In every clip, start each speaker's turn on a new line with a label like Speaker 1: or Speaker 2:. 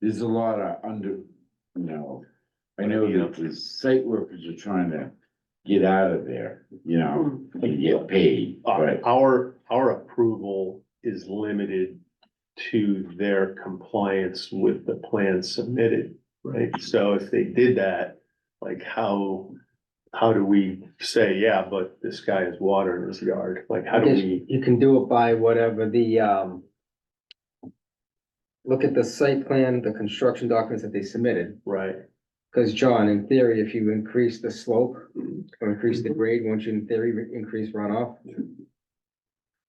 Speaker 1: there's a lot of under, you know. I know that the site workers are trying to get out of there, you know, and get paid,
Speaker 2: Uh,
Speaker 1: but
Speaker 2: Our, our approval is limited to their compliance with the plan submitted, right? So if they did that, like how, how do we say, yeah, but this guy has water in his yard? Like, how do we?
Speaker 3: You can do it by whatever the, um. Look at the site plan, the construction documents that they submitted,
Speaker 2: Right,
Speaker 3: because John, in theory, if you increase the slope. Or increase
Speaker 2: Mm-hmm.
Speaker 3: the grade, won't you in theory re- increase runoff?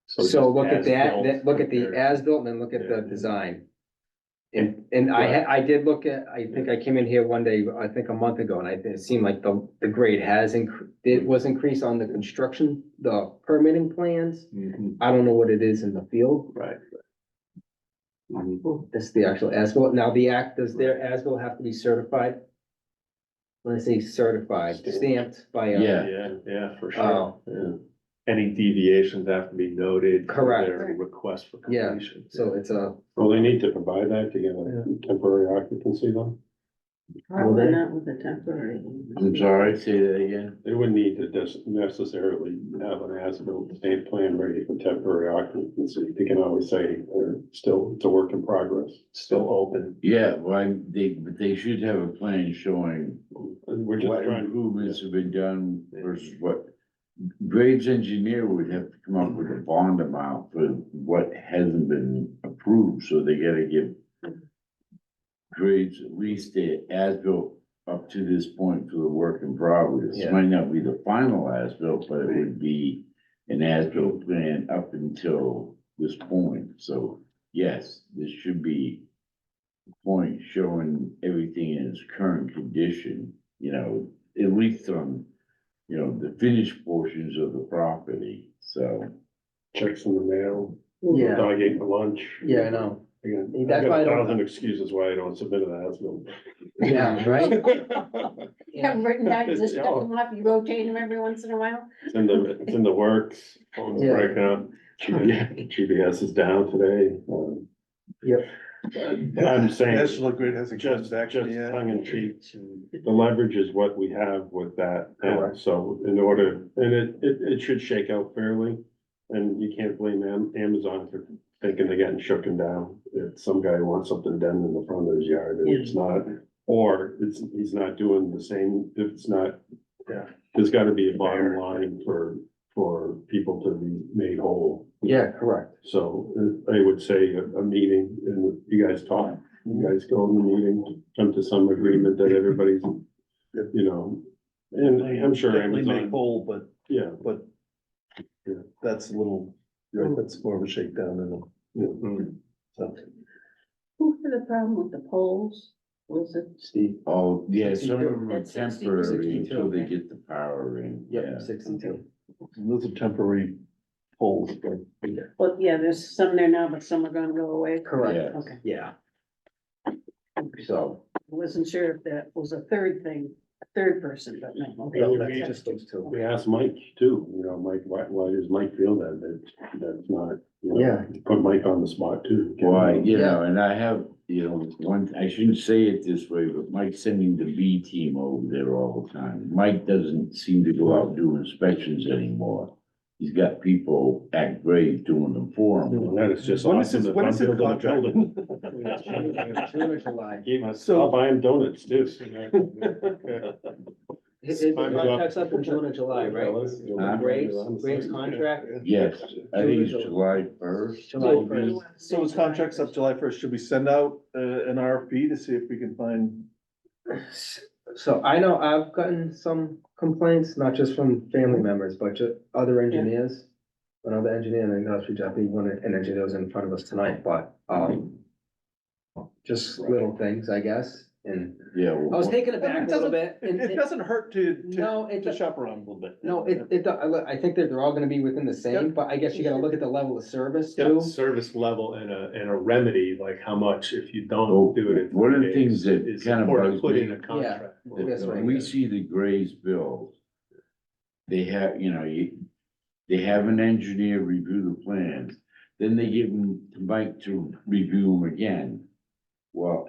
Speaker 3: So
Speaker 2: just
Speaker 3: look at that,
Speaker 2: as-built
Speaker 3: that- look at the
Speaker 2: compared-
Speaker 3: as-built and then look at the
Speaker 2: Yeah.
Speaker 3: design. And, and I, had- I did look at, I think I came in here one day, I think a month ago, and I, it seemed like the, the grade has incre it
Speaker 2: Mm.
Speaker 3: was increased on the construction, the permitting plans.
Speaker 2: Mhm,
Speaker 3: I don't know what it is in the field,
Speaker 2: Right. Mhm.
Speaker 3: That's the actual ASBIL. Now, the act, does their ASBIL have to be certified? When I say certified, stamped by a.
Speaker 1: Yeah.
Speaker 2: Yeah, yeah, for sure,
Speaker 3: Oh.
Speaker 2: yeah. Any deviations have to be noted. for
Speaker 3: Correct.
Speaker 2: their Request for
Speaker 3: Yeah,
Speaker 2: completion.
Speaker 3: So it's a,
Speaker 4: Well, they need to provide that to get a temporary occupancy though.
Speaker 5: Probably not with the temporary.
Speaker 1: I'm sorry, say that again.
Speaker 4: They wouldn't need to des- necessarily have an as-built state plan ready for temporary occupancy. They can always say they're still, it's a work in progress.
Speaker 2: Still open.
Speaker 1: Yeah, well, I- they, but they should have a plan showing
Speaker 4: And We're just
Speaker 1: what
Speaker 4: trying,
Speaker 1: improvements have been done versus what. Graves engineer would have to come up with a bond amount for what hasn't been approved, so they gotta give. Graves at least the as-built up to this point for the work in progress. It
Speaker 3: Yeah.
Speaker 1: Might not be the final as-built, but it would be an as-built plan up until this point, so yes, this should be. a Point showing everything in its current condition, you know, at least on, you know, the finished portions of the property, so.
Speaker 4: checks in the mail,
Speaker 3: yeah,
Speaker 4: dog ate for lunch.
Speaker 3: yeah, I know.
Speaker 4: I got- I've
Speaker 3: That's why
Speaker 4: got a
Speaker 3: I don't-
Speaker 4: thousand excuses why I don't submit an as-built.
Speaker 3: Yeah, right?
Speaker 5: Have
Speaker 3: Yeah.
Speaker 5: written down, just
Speaker 4: Yeah.
Speaker 5: stuck them up, you rotate them every once in a while.
Speaker 4: It's in the, it's in the works, phone's
Speaker 3: Yeah.
Speaker 4: breaking up. GPS is down today. um,
Speaker 3: Yep.
Speaker 4: I'm saying.
Speaker 6: National Grid hasn't
Speaker 4: Just,
Speaker 6: just
Speaker 4: just
Speaker 6: action yet.
Speaker 4: tongue in cheek, the leverage is what we have with that, and so in order, and it, it, it should shake out fairly. And you can't blame Am- Amazon for thinking they're getting shooken down, if some guy wants something done in the front of his yard, and it's not. Or it's, he's not doing the same, if it's not.
Speaker 2: Yeah.
Speaker 4: There's gotta be a bottom line for, for people to be made whole.
Speaker 3: Yeah, correct.
Speaker 4: So uh, I would say a, a meeting and you guys talk, you guys go in the meeting, come to some agreement that everybody's, you know, and I'm sure
Speaker 6: Definitely make
Speaker 4: Amazon,
Speaker 6: whole, but,
Speaker 4: yeah.
Speaker 6: but yeah, that's a little, right,
Speaker 4: Hmm.
Speaker 6: that's more of a shakedown than a,
Speaker 2: Mhm.
Speaker 6: so.
Speaker 5: Who had the problem with the poles? Was it?
Speaker 6: Steve.
Speaker 1: Oh, yeah, some of them are
Speaker 5: That's 60,
Speaker 1: temporary
Speaker 5: 62,
Speaker 1: until they
Speaker 5: okay.
Speaker 1: get the power in, yeah.
Speaker 3: Yep, sixty-two.
Speaker 6: Those are temporary poles, but
Speaker 5: Well, yeah, there's some there now, but some are gonna go away.
Speaker 3: Correct,
Speaker 1: Yeah.
Speaker 5: Okay,
Speaker 3: yeah. So.
Speaker 5: I wasn't sure if that was a third thing, a third person, but no. okay.
Speaker 4: Yeah, we
Speaker 3: Just those two.
Speaker 4: We asked Mike too, you know, Mike, why, why does Mike feel that, that, that's not, you know,
Speaker 3: Yeah.
Speaker 4: Put Mike on the spot too.
Speaker 1: Why, you know, and I have, you know, one, I shouldn't say it this way, but Mike's sending the B team over there all the time. Mike doesn't seem to go out and do inspections anymore. He's got people at grade doing them for him.
Speaker 4: That is just.
Speaker 6: When is
Speaker 4: awesome
Speaker 6: his-
Speaker 4: that
Speaker 6: when
Speaker 4: I'm
Speaker 6: is his
Speaker 4: building a
Speaker 6: contract?
Speaker 4: building.
Speaker 3: June or July.
Speaker 4: Gave us,
Speaker 6: So-
Speaker 4: I'll buy him donuts too.
Speaker 3: His, his
Speaker 4: Time's up.
Speaker 3: contract's up in June or July, right?
Speaker 6: Uh,
Speaker 3: Graves, Graves contract?
Speaker 1: Yes, I think it's July first.
Speaker 3: July first.
Speaker 6: So his contract's up July first. Should we send out uh, an RFP to see if we can find?
Speaker 3: So I know I've gotten some complaints, not just from family members, but just other engineers. Another engineer, and I know it's definitely one, an engineer was in front of us tonight, but, um. Just little things, I guess, and
Speaker 1: Yeah.
Speaker 3: I was taken aback a little bit.
Speaker 6: It,
Speaker 3: and-
Speaker 6: it doesn't hurt to, to,
Speaker 3: No, it,
Speaker 6: to shop around a little bit.
Speaker 3: no, it, it, I look- I think that they're all gonna be within the same, but I guess you gotta look at the level of service
Speaker 2: Yeah,
Speaker 3: too.
Speaker 2: service level and a, and a remedy, like how much if you
Speaker 1: Well,
Speaker 2: don't do it. in
Speaker 1: one of the
Speaker 2: 30
Speaker 1: things
Speaker 2: days
Speaker 1: that
Speaker 2: is
Speaker 1: kind of
Speaker 2: important to
Speaker 1: bugs
Speaker 2: Put
Speaker 1: me-
Speaker 2: in a contract.
Speaker 3: Yes,
Speaker 1: When
Speaker 3: right.
Speaker 1: we see the Graves bill, they have, you know, you, they have an engineer review the plans, then they give them to Mike to review them again. Well,